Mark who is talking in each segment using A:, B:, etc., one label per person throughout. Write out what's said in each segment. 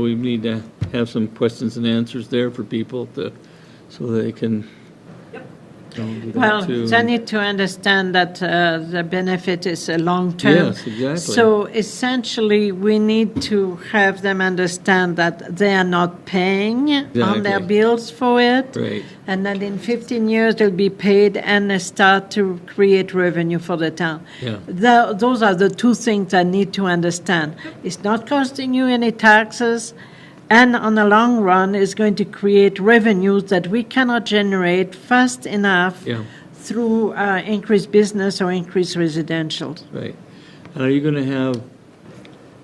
A: We need to have some questions and answers there for people to, so they can. Don't do that
B: Well,
A: too.
B: they need to understand that uh, the benefit is a long term.
A: Yes, exactly.
B: So essentially, we need to have them understand that they are not paying on their
A: Exactly.
B: bills for it.
A: Right.
B: And that in 15 years, they'll be paid and they start to create revenue for the town.
A: Yeah.
B: Tho- Those are the two things I need to understand. It's not costing you any taxes, and on the long run, it's going to create revenues that we cannot generate fast enough
A: Yeah.
B: through uh, increased business or increased residential.
A: Right. And are you going to have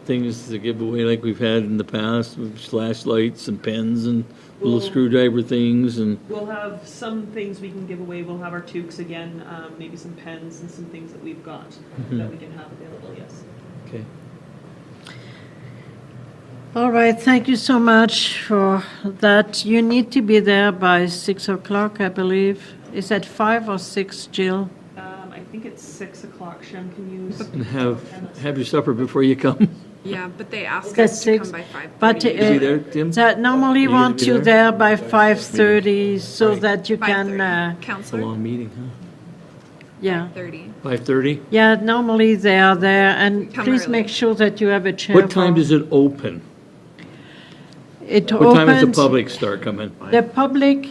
A: things to give away like we've had in the past, with flashlights and pens and little
C: Well-
A: screwdriver things and,
C: We'll have some things we can give away. We'll have our toques again, um, maybe some pens and some things that we've got
A: Mm-hmm.
C: that we can have available, yes.
A: okay.
B: All right, thank you so much for that. You need to be there by 6 o'clock, I believe. Is that 5 or 6, Jill?
C: Um, I think it's six o'clock. Shem can use.
A: And have, have your supper before you come.
D: Yeah, but they asked
B: That's
D: us to
B: six.
D: come by five.
B: But
A: Is he
B: uh,
A: there, Tim?
B: that normally
A: You gonna
B: want
A: be
B: you
A: there?
B: there by 5:30 so that you can, uh,
A: It's a
D: Counselor,
A: long meeting, huh?
B: yeah.
D: thirty.
A: 5:30?
B: Yeah, normally they are there, and
D: Come
B: please
D: early.
B: make sure that you have a chair.
A: What time
B: for-
A: does it open?
B: It
A: What time does the
B: opens-
A: public start coming?
B: The public,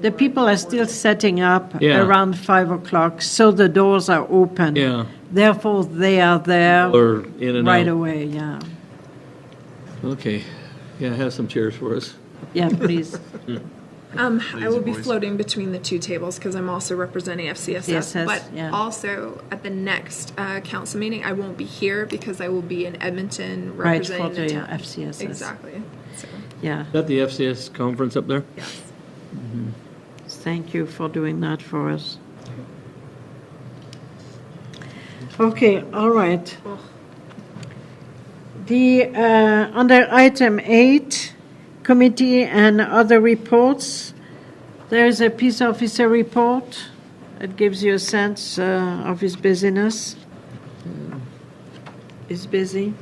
B: the people are still setting up
A: Yeah.
B: around 5 o'clock, so the doors are open.
A: Yeah.
B: Therefore, they are there
A: Or in and out?
B: right away, yeah.
A: Okay, yeah, have some chairs for us.
B: Yeah, please,
D: Um, I will be floating between the two tables because I'm also representing FCSS.
B: FCSS,
D: but
B: yeah.
D: also at the next uh, council meeting, I won't be here because I will be in Edmonton
B: right, for
D: representing
B: the
D: the town.
B: FCSS.
D: Exactly. So,
B: Yeah,
A: Is that the FCS conference up there?
D: yes.
B: thank you for doing that for us. Okay, all right.
D: Well,
B: The, uh, under item eight, committee and other reports, there is a peace officer report. It gives you a sense uh, of his busyness. He's busy.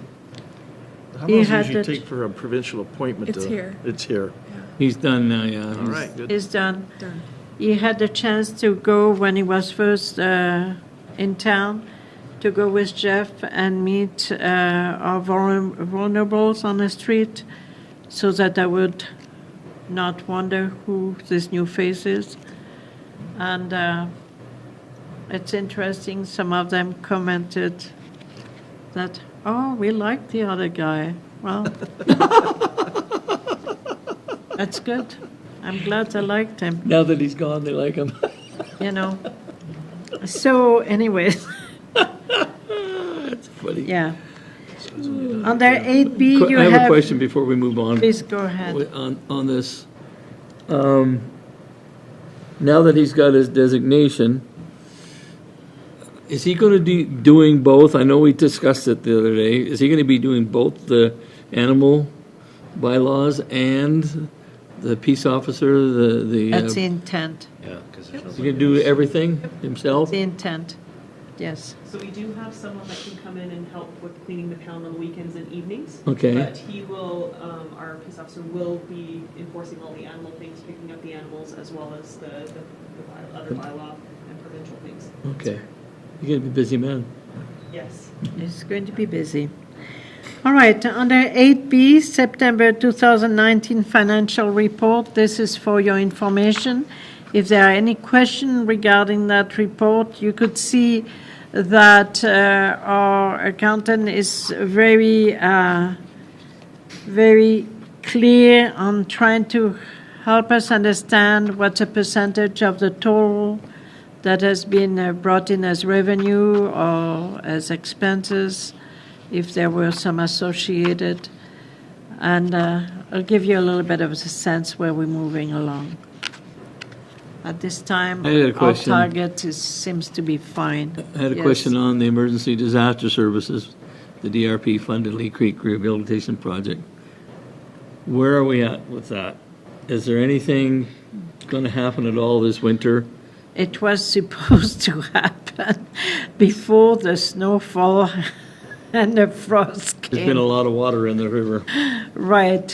E: How
B: He
E: long does
B: had
E: it usually
B: it-
E: take for a provincial appointment?
D: It's
E: to-
D: here.
E: It's here.
A: He's done now, yeah.
E: All right, good.
B: He's done.
D: Done.
B: He had the chance to go when he was first uh, in town, to go with Jeff and meet uh, our vulner- vulnerables on the street, so that I would not wonder who this new face is. And uh, it's interesting, some of them commented that, oh, we like the other guy. Well, that's good. I'm glad they liked him
A: Now that he's gone, they like him.
B: you know. So, anyways,
A: That's funny.
B: yeah. Under eight B,
A: Que-
B: you
A: I
B: have.
A: have a question before we move on.
B: Please go ahead.
A: Wi- On, on this, um, now that he's got his designation, is he gonna be doing both? I know we discussed it the other day. Is he gonna be doing both the animal bylaws and the peace officer, the, the? uh,
B: That's the intent.
A: He can do everything himself?
B: The intent. Yes.
C: So we do have someone that can come in and help with cleaning the pound on the weekends and evenings.
A: Okay.
C: But he will, um, our peace officer will be enforcing all the animal things, picking up the animals as well as the, the, the by- other bylaw and provincial things.
A: Okay. You're gonna be a busy man.
C: Yes.
B: It's going to be busy. All right, under 8B, September 2019 financial report. This is for your information. If there are any questions regarding that report, you could see that uh, our accountant is very, uh, very clear on trying to help us understand what's a percentage of the total that has been uh, brought in as revenue or as expenses, if there were some associated. And uh, I'll give you a little bit of a sense where we're moving along. At this time,
A: I had a
B: our
A: question.
B: target is, seems to be fine.
A: I had a
B: Yes.
A: question on the emergency disaster services, the DRP funded Lee Creek Rehabilitation Project. Where are we at with that? Is there anything going to happen at all this winter?
B: It was supposed to happen before the snowfall and the frost
A: There's been a
B: Okay,
A: lot of water in the river.
B: right.